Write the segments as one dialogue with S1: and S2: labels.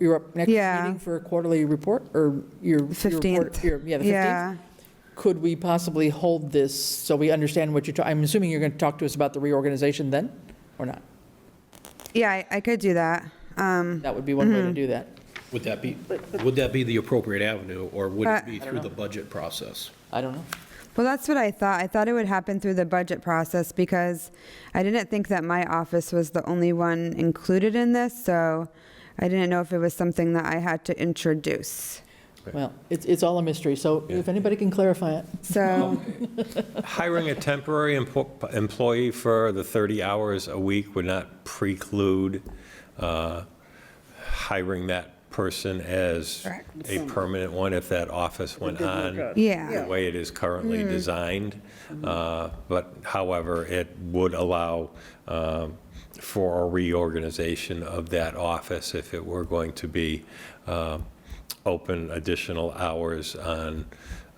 S1: You're up next
S2: Yeah.
S1: meeting for a quarterly report, or your? your report-
S2: 15th.
S1: your- Yeah, the 15th. Could we possibly hold this so we understand what you're, ta- I'm assuming you're going to talk to us about the reorganization then, or not?
S2: Yeah, I- I could do that. Um,
S1: That would be one way to do that.
S3: Would that be, would that be the appropriate avenue, or would
S2: Uh,
S3: it be through the budget process?
S1: I don't know.
S2: Well, that's what I thought. I thought it would happen through the budget process because I didn't think that my office was the only one included in this, so I didn't know if it was something that I had to introduce.
S1: Well, it's, it's all a mystery, so if anybody can clarify it.
S2: So,
S4: Hiring a temporary empo- employee for the 30 hours a week would not preclude uh, hiring that person as a permanent one if that office went on the
S2: yeah, Mm-hmm.
S4: way it is currently designed. Uh, But however, it would allow um, for a reorganization of that office if it were going to be um, open additional hours on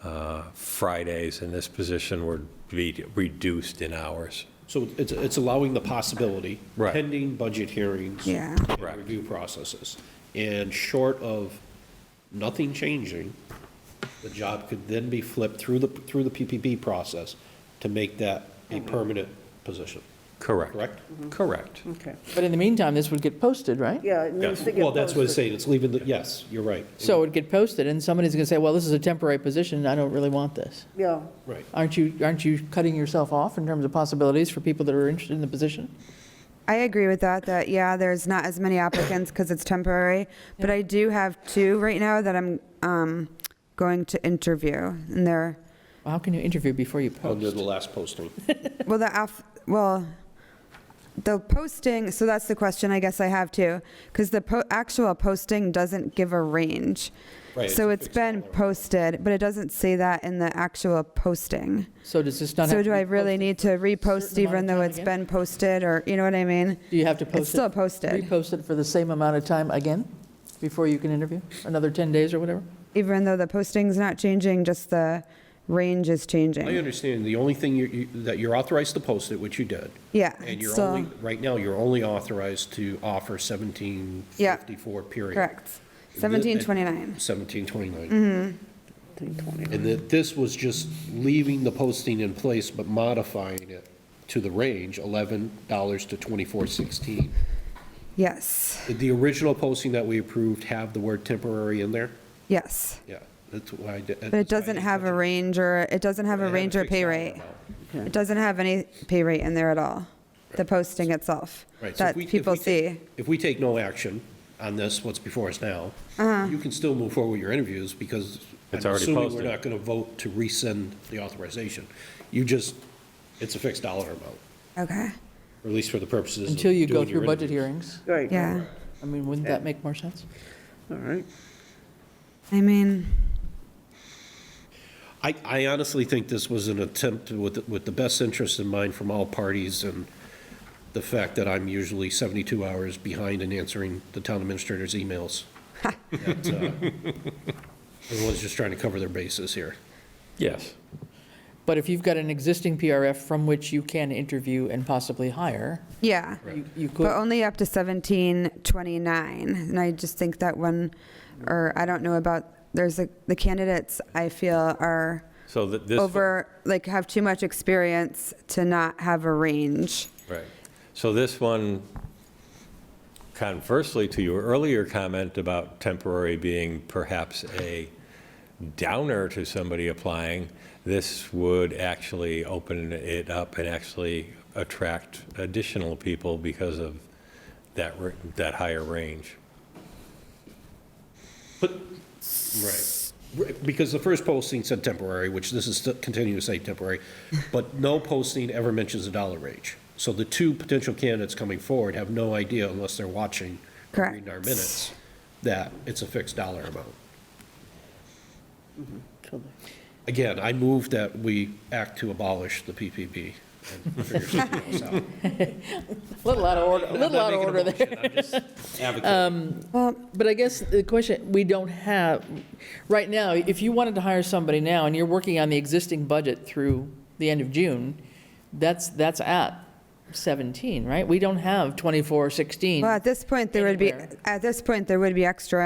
S4: uh, Fridays, and this position would be reduced in hours.
S3: So it's, it's allowing the possibility.
S4: Right.
S3: Pending budget hearings.
S2: Yeah.
S3: and
S4: Correct.
S3: Review processes. And short of nothing changing, the job could then be flipped through the, through the PPP process to make that a permanent position,
S4: Correct.
S3: correct?
S4: Correct.
S2: Mm-hmm.
S5: Okay,
S1: But in the meantime, this would get posted, right?
S5: yeah, it needs to get
S3: Well, that's what I'm
S5: posted.
S3: saying, it's leaving, the yes, you're right.
S1: So it'd get posted, and somebody's going to say, well, this is a temporary position, I don't really want this.
S5: Yeah,
S3: Right.
S1: Aren't you, aren't you cutting yourself off in terms of possibilities for people that are interested in the position?
S2: I agree with that, that, yeah, there's not as many applicants because it's temporary, but I do have two right now that I'm um, going to interview, and they're,
S1: How can you interview before you
S3: Under
S1: post?
S3: the last posting.
S2: Well, the, af- well, the posting, so that's the question I guess I have too, because the po- actual posting doesn't give a range.
S3: Right, it's
S2: So
S3: a
S2: it's
S3: fixed
S2: been posted, but it doesn't say that in the actual posting.
S1: So does this not have to
S2: So do
S1: be
S2: I really
S1: posted?
S2: need to repost
S1: certain amount
S2: even
S1: of
S2: though
S1: time
S2: it's
S1: again?
S2: been posted or, you know what I mean?
S1: Do you have to post it?
S2: It's still posted,
S1: Repost it for the same amount of time again before you can interview? Another 10 days or whatever?
S2: even though the posting's not changing, just the range is
S3: I
S2: changing.
S3: understand, the only thing you- you, that you're authorized to post it, which you did,
S2: Yeah,
S3: And
S2: it's uh,
S3: you're
S2: still,
S3: only, right now, you're only authorized to offer 1754 period.
S2: correct. Mm-hmm.
S3: And thi- and-
S2: 1729.
S3: 1729. And that this was just leaving the posting in place, but modifying it to the range, $11 to 2416.
S2: Yes,
S3: Did the original posting that we approved have the word temporary in there?
S2: yes.
S3: Yeah, that's why I did.
S2: But it doesn't have a range or, it doesn't have a range or pay rate. It doesn't have any pay rate in there at all, the posting itself,
S3: Right, so if
S2: that
S3: we- if
S2: people
S3: we ta-
S2: see.
S3: If we take no action on this, what's before us now,
S2: Uh-huh.
S3: you can still move forward with your interviews because I'm
S4: It's already
S3: assuming we're
S4: posted.
S3: not going to vote to rescind the authorization. You just, it's a fixed dollar amount,
S2: Okay,
S3: or at least for the purposes of
S1: Until you go
S3: doing your
S1: through budget
S3: interviews.
S1: hearings?
S5: right.
S2: yeah.
S1: I mean, wouldn't that make more sense?
S5: All right,
S2: I mean,
S3: I, I honestly think this was an attempt with, with the best interest in mind from all parties and the fact that I'm usually 72 hours behind in answering the town administrator's emails. That, uh, Everyone's just trying to cover their bases here.
S4: Yes.
S1: But if you've got an existing PRF from which you can interview and possibly hire,
S2: yeah,
S1: you- you could.
S2: but only up to 1729. And I just think that one, or I don't know about, there's a- the candidates I feel are
S4: So that this.
S2: over, like have too much experience to not have a range.
S4: Right. So this one, conversely to your earlier comment about temporary being perhaps a downer to somebody applying, this would actually open it up and actually attract additional people because of that, r- that higher range.
S3: Right. Because the first posting said temporary, which this is still continuing to say temporary, but no posting ever mentions a dollar range. So the two potential candidates coming forward have no idea unless they're watching, or reading our
S2: Correct.
S3: minutes, that it's a fixed dollar amount.
S1: Mm-hmm.
S5: so
S3: Again, I move that we act to abolish the PPP and figure something else out.
S1: Little out of order, little out of order there.
S2: Well,
S1: But I guess the question, we don't have, right now, if you wanted to hire somebody now and you're working on the existing budget through the end of June, that's, that's at 17, right? We don't have 24, 16.
S2: Well, at this point, there would be,
S1: Anywhere.
S2: at this point, there would be extra